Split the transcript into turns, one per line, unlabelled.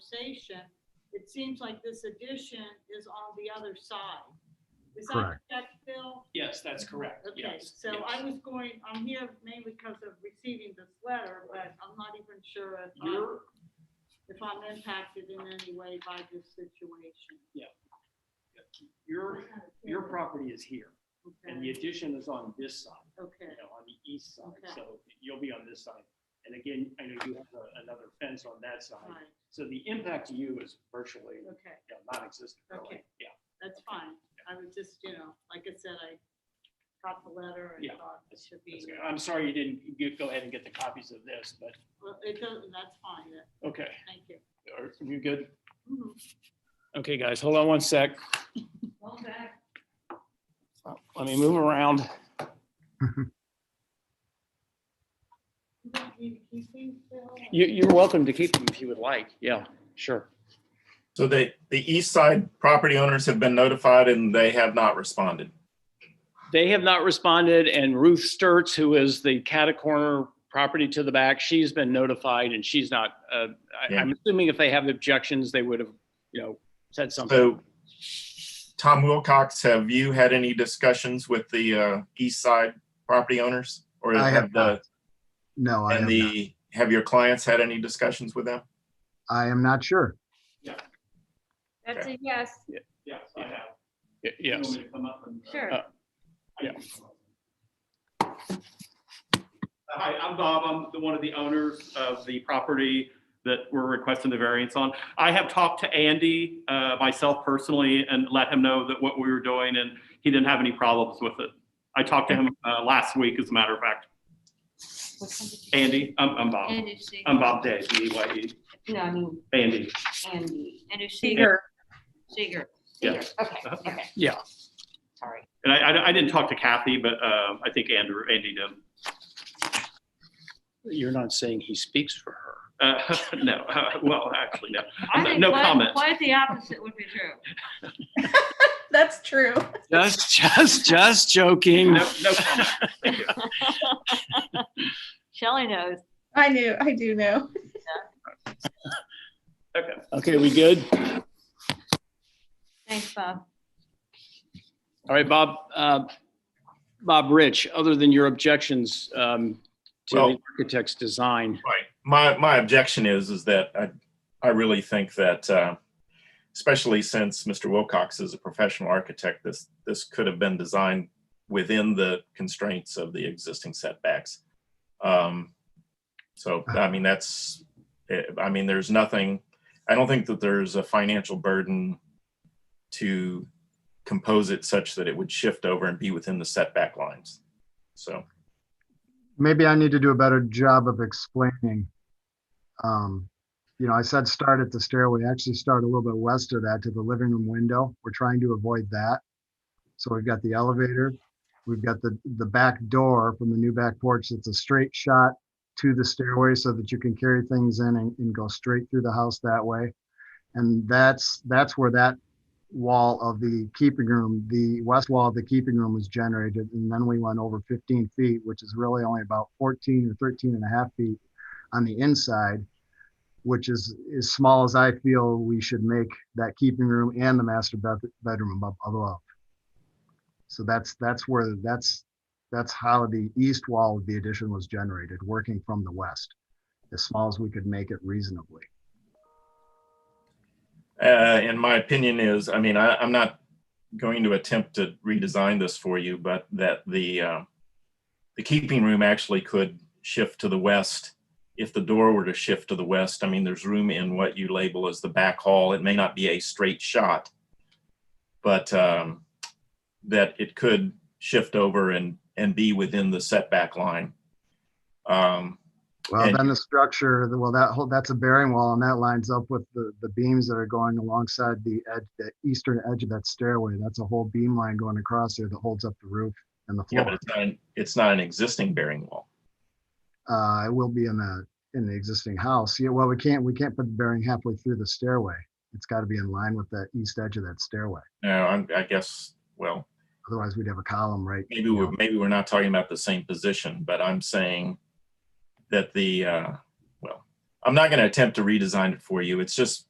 conversation, it seems like this addition is on the other side. Is that
Correct.
correct, Bill?
Yes, that's correct.
Okay,
Yes.
so I
yes.
was going, I'm here mainly because of receiving this letter, but I'm not even sure if I'm,
You're,
if I'm impacted in any way by this situation.
your, your property is here and the
Okay,
addition is on this side, you
okay,
know, on the east side.
Okay.
So you'll be on this side. And again, I know you have a- another fence on that side.
fine,
So the impact to you is virtually you
okay,
know, non-existent really.
Okay.
Yeah.
that's fine. I was just, you know, like I said, I got the letter and
Yeah,
thought it should be,
That's good. I'm sorry you didn't get- go ahead and get the copies of this, but,
well, it doesn't, that's fine, that-
okay.
thank you.
Are you good?
Mhm.
Okay, guys, hold on one sec.
Okay.
Let me move around.
You want me to keep these, Bill?
You, you're welcome to keep them if you would like. Yeah, sure.
So they, the east side property owners have been notified and they have not responded.
They have not responded, and Ruth Sturts, who is the catacorner property to the back, she's been notified, and she's not, uh, I-
Yeah.
I'm assuming if they have objections, they would have, you know, said something.
So Tom Wilcox, have you had any discussions with the uh, east side property owners? Or
I have
have the,
No, I am,
uh, and
not-
the, have your clients had any discussions with them?
I am not sure.
That's a yes,
Yes, I have.
Y-
You want
Yes.
me to come up and-
sure.
Uh, yeah.
Hi, I'm Bob. I'm the, one of the owners of the property that we're requesting the variance on. I have talked to Andy, uh, myself personally, and let him know that what we were doing, and he didn't have any problems with it. I talked to him, uh, last week, as a matter of fact. Andy, I'm, I'm Bob.
Anderson.
I'm Bob Day, B Y E,
No, I mean,
Andy.
Andy. Anderson. Seeger. Seeger.
Yeah. Uh-huh.
Okay, okay,
Yeah,
sorry.
And I, I, I didn't talk to Kathy, but, uh, I think Andrew, Andy did.
you're not saying he speaks for her.
Uh, no, uh, well, actually, no.
I
No-
think
no
quite-
comment.
Quite the opposite would be true.
That's true.
Just, just, just joking.
No, no comment. Thank you.
Shelley knows.
I knew, I do know.
Okay.
Okay, we good?
Thanks, Bob.
All right, Bob, uh, Bob Rich, other than your objections, um, to the
Well-
architect's design.
Right. My, my objection is, is that I, I really think that, uh, especially since Mr. Wilcox is a professional architect, this, this could have been designed within the constraints of the existing setbacks. Um, So, I mean, that's, eh, I mean, there's nothing, I don't think that there's a financial burden to compose it such that it would shift over and be within the setback lines. So,
Maybe I need to do a better job of explaining. Um, You know, I said start at the stairway, actually start a little bit west of that to the living room window. We're trying to avoid that. So we've got the elevator, we've got the, the back door from the new back porch that's a straight shot to the stairway so that you can carry things in and, and go straight through the house that way. And that's, that's where that wall of the keeping room, the west wall of the keeping room was generated, and then we went over 15 feet, which is really only about 14 or 13 and a half feet on the inside, which is as small as I feel we should make that keeping room and the master bed- bedroom above. above. So that's that's where that's that's how the east wall of the addition was generated, working from the west, as small as we could make it reasonably.
Uh, and my opinion is, I mean, I, I'm not going to attempt to redesign this for you, but that the, uh, the keeping room actually could shift to the west. If the door were to shift to the west, I mean, there's room in what you label as the back hall. It may not be a straight shot, but, um, that it could shift over and, and be within the setback line. Um,
Well,
And-
then the structure, the- well, that whole, that's a bearing wall and that lines up with the, the beams that are going alongside the edge, the eastern edge of that stairway. That's a whole beam line going across there that holds up the roof and the
yeah, but
floor.
it's not, an- it's not an existing bearing wall.
Uh, it will be in the, in the existing house. Yeah, well, we can't, we can't put the bearing halfway through the stairway. It's got to be in line with that east edge of that stairway.
No, I'm, I guess, well,
Otherwise we'd have a column right.
maybe
you
we're
know.
maybe we're not talking about the same position, but I'm saying that the uh, well, I'm not going to attempt to redesign it for you. It's just